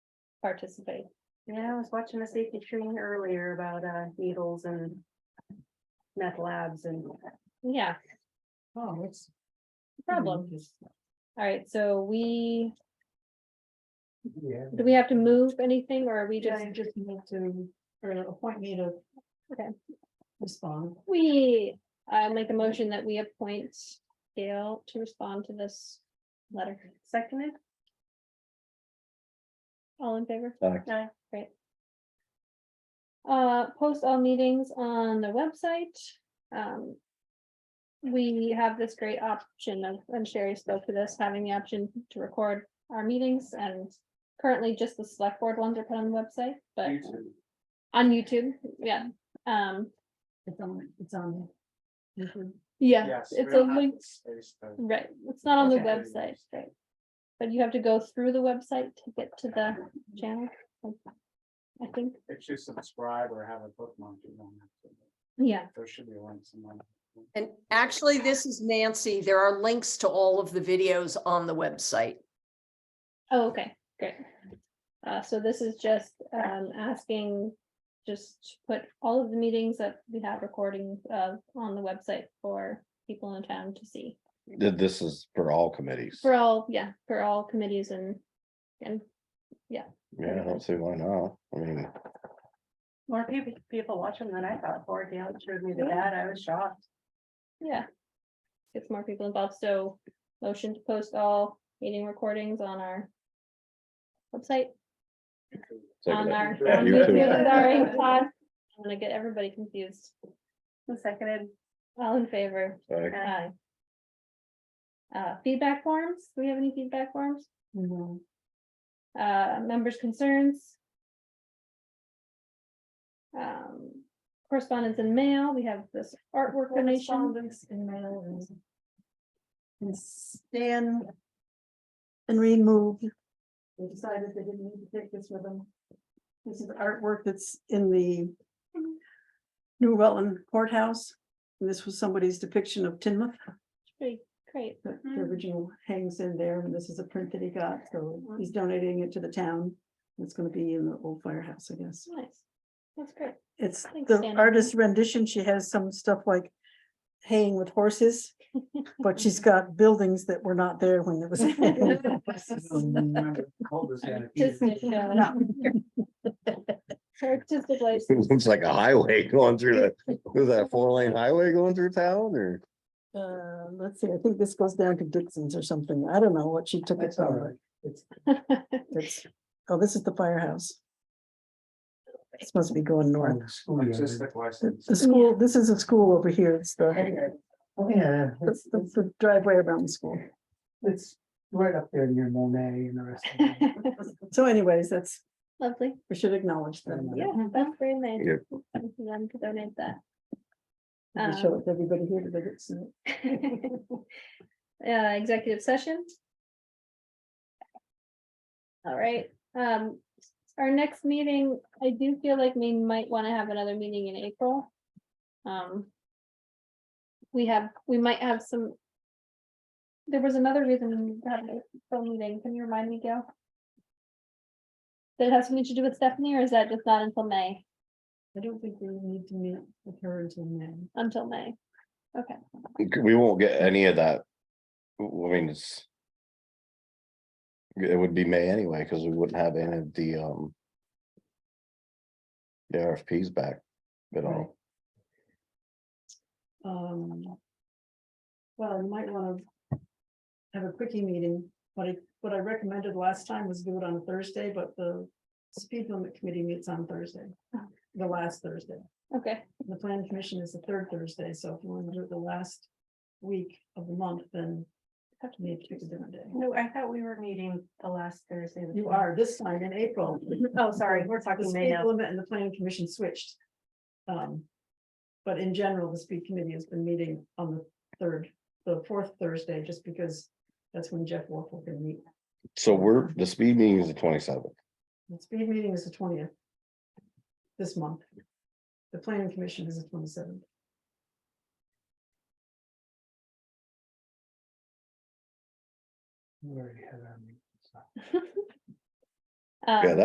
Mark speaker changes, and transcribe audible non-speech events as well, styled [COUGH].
Speaker 1: participate.
Speaker 2: Yeah, I was watching a safety training earlier about uh needles and. Meth labs and.
Speaker 1: Yeah,
Speaker 3: Oh, it's.
Speaker 2: Hmm.
Speaker 1: problem. All right, so we,
Speaker 4: Yeah.
Speaker 1: do we have to move anything or are we
Speaker 3: Yeah,
Speaker 1: just,
Speaker 3: you just need to, or appoint me to.
Speaker 1: Okay.
Speaker 3: Respond.
Speaker 1: we, I make a motion that we appoint Gail to respond to this letter.
Speaker 2: Seconded,
Speaker 1: All in favor?
Speaker 4: Aye.
Speaker 2: Aye.
Speaker 1: Great. Uh, post all meetings on the website, um. We have this great option of, and Sherry spoke to this, having the option to record our meetings and. Currently, just the select board ones are put on the website, but on YouTube, yeah, um,
Speaker 3: It's on, it's on. there. Mhm.
Speaker 1: yeah, it's a link,
Speaker 4: It's
Speaker 1: right, it's not on the
Speaker 3: Okay.
Speaker 1: website, right? But you have to go through the website to get to the channel. I think,
Speaker 4: If you subscribe or have a bookmark, you don't have to.
Speaker 1: yeah,
Speaker 4: There should be one somewhere.
Speaker 5: And actually, this is Nancy. There are links to all of the videos on the website.
Speaker 1: Oh, okay, great. Uh, so this is just, um, asking, just to put all of the meetings that we have recordings of on the website for people in town to see.
Speaker 6: Th- This is for all committees.
Speaker 1: For all, yeah, for all committees and, and,
Speaker 6: Yeah, I don't see why not. I mean,
Speaker 2: more people, people watching than I thought, poor Gail showed me the ad, I was shocked.
Speaker 1: yeah. Gets more people involved, so motion to post all meeting recordings on our website, on
Speaker 6: second it.
Speaker 1: our.
Speaker 4: Yeah,
Speaker 1: on
Speaker 6: you
Speaker 2: [LAUGHS]
Speaker 6: too.
Speaker 1: YouTube,
Speaker 3: [LAUGHS]
Speaker 1: sorry, [LAUGHS] pod. I'm gonna get everybody confused,
Speaker 2: And Seconded,
Speaker 1: all in favor?
Speaker 6: Like,
Speaker 1: Aye. Uh, feedback forms, do we have any feedback forms?
Speaker 3: Mhm.
Speaker 1: Uh, members' concerns? Um, correspondence and mail, we have this artwork donation,
Speaker 3: Correspondence and mail and- And Stan. And remove. They decided they didn't need to take this with them. This is artwork that's in the. New Rutland courthouse. And This was somebody's depiction of Tinmouth.
Speaker 1: Pretty great,
Speaker 3: The the original hangs in there, and this is a print that he got, so he's donating it to the town. It's gonna be in the old firehouse, I guess.
Speaker 1: nice, that's great,
Speaker 3: It's
Speaker 1: Thanks,
Speaker 3: the
Speaker 1: Shannon.
Speaker 3: artist's rendition, she has some stuff like haying with horses. But she's got buildings that were not there when it was.
Speaker 1: Just to show- uh, artistic
Speaker 6: [LAUGHS] It
Speaker 1: license,
Speaker 6: looks like a highway [LAUGHS] going through the, was that a four lane highway going through town or?
Speaker 3: Uh, let's see, I think this goes down to Dixon's or something, I don't know what she took it
Speaker 4: That's all
Speaker 3: from,
Speaker 4: right. It's
Speaker 3: but it's, oh, this is the firehouse. It's supposed to be going north.
Speaker 4: artistic
Speaker 3: The
Speaker 4: license.
Speaker 3: the school, this is a school over here, it's the, Oh,
Speaker 7: Yeah,
Speaker 3: it's
Speaker 7: it's,
Speaker 3: the the driveway around the school.
Speaker 7: it's right up there near Monet and the rest of them.
Speaker 4: [LAUGHS]
Speaker 3: So anyways, that's,
Speaker 1: [LAUGHS] lovely,
Speaker 3: we should acknowledge them.
Speaker 1: yeah, that's very nice.
Speaker 6: Yep.
Speaker 1: Thank you, Them to donate that.
Speaker 3: We show it to everybody here that it's, uh,
Speaker 1: [LAUGHS] Uh, executive session. All right, um, our next meeting, I do feel like we might want to have another meeting in April. Um. We have, we might have some. There was another reason we had a phone meeting, can you remind me, Gail? Did it have something to do with Stephanie, or is that just not until May,
Speaker 3: I don't think we need to meet with her until then.
Speaker 1: until May? Okay,
Speaker 6: We won't get any of that. I mean, it's. It would be May anyway, because we wouldn't have any of the, um. The RFPs back at all.
Speaker 3: Um. Well, you might wanna have a quickie meeting, but I, what I recommended last time was do it on a Thursday, but the speed limit committee meets on Thursday. The last Thursday,
Speaker 1: okay,
Speaker 3: the planning commission is the third Thursday, so if you wanna do it the last week of the month, then you have to meet a different day.
Speaker 2: no, I thought we were meeting the last Thursday. of the
Speaker 3: You
Speaker 2: month.
Speaker 3: are this time in April.
Speaker 2: Oh, sorry, we're
Speaker 3: The
Speaker 2: talking May
Speaker 3: speed
Speaker 2: now.
Speaker 3: limit and the planning commission switched. Um, but in general, the speed committee has been meeting on the third, the fourth Thursday, just because that's when Jeff Wolf can meet.
Speaker 6: So we're, the speed meeting is the twenty seventh.
Speaker 3: The speed meeting is the twentieth this month. The planning commission is the twenty-seventh.
Speaker 7: We already had our meeting, so.
Speaker 1: um,
Speaker 6: Yeah,